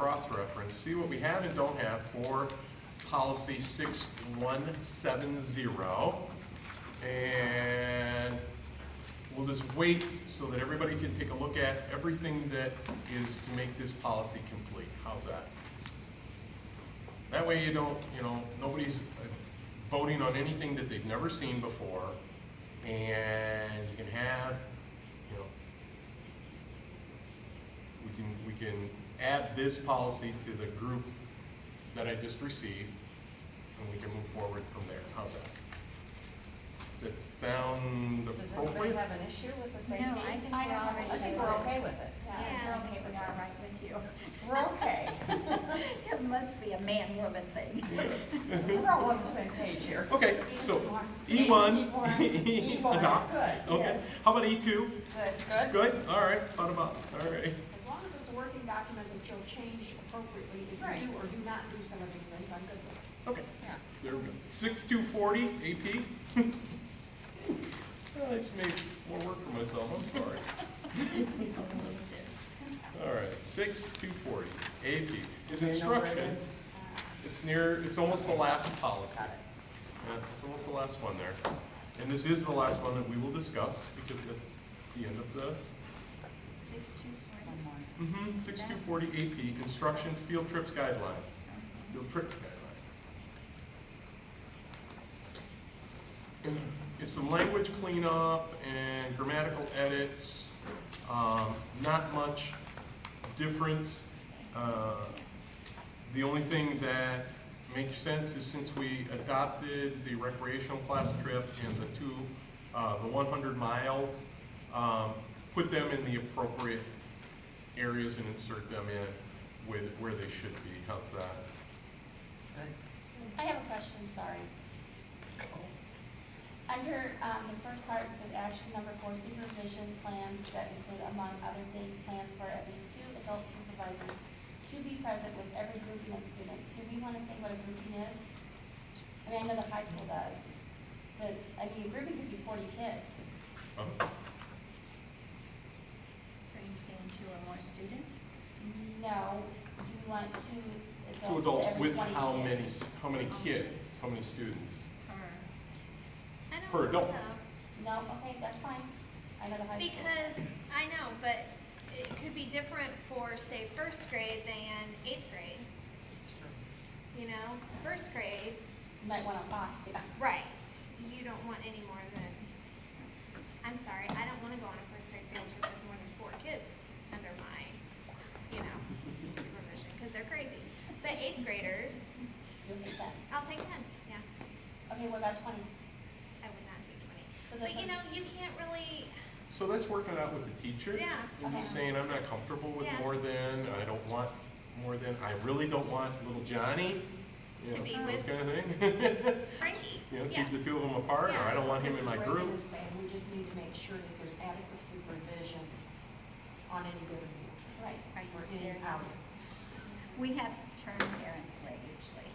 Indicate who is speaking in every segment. Speaker 1: cross-reference, see what we have and don't have for policy 6170. And we'll just wait so that everybody can take a look at everything that is to make this policy complete. How's that? That way you don't, you know, nobody's uh, voting on anything that they've never seen before, and you can have, you know, we can, we can add this policy to the group that I just received, and we can move forward from there. How's that? Does that sound
Speaker 2: Does anybody
Speaker 1: appropriate?
Speaker 2: have an issue with the safety?
Speaker 3: No, I think
Speaker 4: I
Speaker 3: we're
Speaker 4: don't
Speaker 3: all
Speaker 4: have
Speaker 3: right.
Speaker 4: an
Speaker 2: I think we're okay with it.
Speaker 3: Yeah,
Speaker 4: Yeah.
Speaker 3: we're okay with
Speaker 4: We
Speaker 3: that,
Speaker 4: are.
Speaker 3: right with you.
Speaker 2: We're okay.
Speaker 3: It must be a man-woman thing.
Speaker 2: So We're all on the same page here.
Speaker 1: Okay, so E
Speaker 4: E
Speaker 1: one.
Speaker 4: one.
Speaker 2: E one is
Speaker 1: adopt.
Speaker 2: good,
Speaker 1: Okay,
Speaker 2: yes.
Speaker 1: how about E two?
Speaker 2: Good?
Speaker 1: Good, all right, thought about, all right.
Speaker 4: As long as it's a working document that you'll change appropriately if
Speaker 2: Right.
Speaker 4: you do or do not do some of these things, I'm good with it.
Speaker 1: Okay,
Speaker 2: Yeah.
Speaker 1: there we go. Six two forty AP. Well, I just made more work for myself, I'm sorry.
Speaker 3: Almost did.
Speaker 1: All right, six two forty AP is
Speaker 2: Do you know where it
Speaker 1: instruction.
Speaker 2: is?
Speaker 1: It's near, it's almost the last policy.
Speaker 2: Got it.
Speaker 1: Yeah, it's almost the last one there. And this is the last one that we will discuss because that's the end of the
Speaker 3: Six, two, four.
Speaker 2: One more.
Speaker 1: Mm-hmm, six two forty AP, instruction, field trips guideline, field trips guideline. It's some language cleanup and grammatical edits, um, not much difference. Uh, The only thing that makes sense is since we adopted the recreational class trip and the two, uh, the one hundred miles, um, put them in the appropriate areas and insert them in with where they should be. How's that?
Speaker 2: Good.
Speaker 5: I have a question, sorry. Under, um, the first part, it says action number four, supervision plans that include among other things, plans for at least two adult supervisors to be present with every grouping of students. Do we wanna say what a grouping is? I mean, I know the high school does, but, I mean, a grouping could be forty kids.
Speaker 1: Uh,
Speaker 3: So you're saying two or more students?
Speaker 5: No, do you want two adults
Speaker 1: Two adults
Speaker 5: every
Speaker 1: with
Speaker 5: 20
Speaker 1: how many,
Speaker 5: kids?
Speaker 1: how many kids, how many students? Per
Speaker 3: Per.
Speaker 6: I don't
Speaker 1: adult.
Speaker 6: think so,
Speaker 5: No, okay, that's fine. I know the high school.
Speaker 6: because, I know, but it could be different for, say, first grade than eighth grade,
Speaker 2: It's true.
Speaker 6: you know? First grade,
Speaker 5: You might wanna buy, yeah.
Speaker 6: right, you don't want any more than, I'm sorry, I don't wanna go on a first grade field trip with more than four kids under my, you know, supervision, cause they're crazy. But eighth graders,
Speaker 5: You'll take that.
Speaker 6: I'll take ten, yeah,
Speaker 5: Okay, what about twenty?
Speaker 6: I would not take twenty.
Speaker 5: So
Speaker 6: But
Speaker 5: this
Speaker 6: you
Speaker 5: is-
Speaker 6: know, you can't really,
Speaker 1: So that's working out with the teacher.
Speaker 6: Yeah.
Speaker 1: And he's
Speaker 5: Okay.
Speaker 1: saying, I'm not comfortable with
Speaker 6: Yeah.
Speaker 1: more than, I don't want more than, I really don't want little Johnny. you
Speaker 6: To
Speaker 1: know,
Speaker 6: be
Speaker 1: Those
Speaker 6: with-
Speaker 1: kind of thing.
Speaker 6: Frankie,
Speaker 1: You know,
Speaker 6: yeah,
Speaker 1: keep the two of them apart, or I don't want him in my
Speaker 4: This is
Speaker 1: group.
Speaker 4: Reagan is saying, we just need to make sure that there's adequate supervision on any given week.
Speaker 5: Right.
Speaker 3: Are you
Speaker 4: or
Speaker 3: serious?
Speaker 4: any hour.
Speaker 3: We have to turn parents away usually,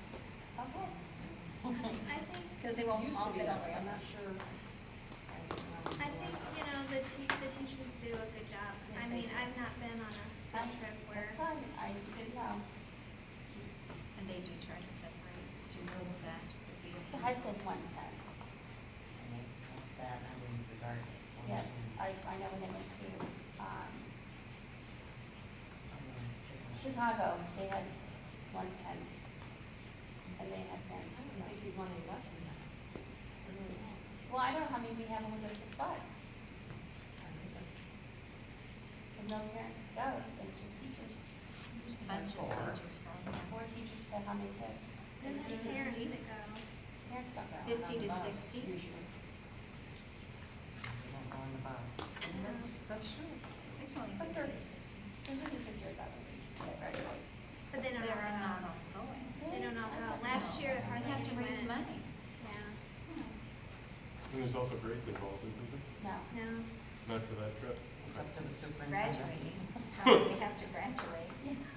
Speaker 5: Okay.
Speaker 6: I think
Speaker 3: because they won't
Speaker 4: Used
Speaker 3: all
Speaker 4: to be
Speaker 3: fit
Speaker 4: that
Speaker 3: on
Speaker 4: way, I'm not
Speaker 3: us.
Speaker 4: sure. I-
Speaker 6: I think, you know, the te- the teachers do a good job. I
Speaker 3: Yes, they do.
Speaker 6: mean, I've not been on a field trip where,
Speaker 5: That's fine, I just didn't know.
Speaker 3: And they do try to separate students that would be.
Speaker 5: The high school's one to ten.
Speaker 7: that, I mean, regardless. one
Speaker 5: Yes,
Speaker 7: thing,
Speaker 5: I, I know when they went to,
Speaker 7: I
Speaker 5: um,
Speaker 7: mean, chicken.
Speaker 5: Chicago, they had one to ten. And they had parents.
Speaker 4: I
Speaker 5: you
Speaker 4: don't think
Speaker 5: know.
Speaker 4: you'd want any less than that. I really don't.
Speaker 5: Well, I don't know how many we have when we go to six bucks,
Speaker 4: I don't either.
Speaker 5: because no parent goes, it's just teachers.
Speaker 3: Bunch
Speaker 7: Four.
Speaker 3: of teachers though, yeah.
Speaker 5: Four teachers to how many kids?
Speaker 6: then there's
Speaker 3: Sixty.
Speaker 6: parents that go.
Speaker 5: Parents don't go.
Speaker 3: Fifty to
Speaker 4: Bus,
Speaker 3: sixty.
Speaker 4: Usually.
Speaker 7: We don't go on the bus.
Speaker 6: um,
Speaker 3: That's, that's true. It's only
Speaker 5: But
Speaker 3: fifty
Speaker 5: they're-
Speaker 3: or sixty.
Speaker 5: There's usually six or seven that graduate.
Speaker 6: But they
Speaker 3: They're
Speaker 6: don't all
Speaker 3: not
Speaker 6: go.
Speaker 3: all going.
Speaker 6: They don't all go. Last year,
Speaker 3: We
Speaker 6: hardly
Speaker 3: have to
Speaker 6: anyone
Speaker 3: raise
Speaker 6: went.
Speaker 3: money.
Speaker 6: Yeah,
Speaker 1: And there's also grades involved, isn't there?
Speaker 5: No.
Speaker 6: no.
Speaker 1: Not for that trip.
Speaker 7: It's up to the superintendent.
Speaker 3: Graduating. They have to graduate.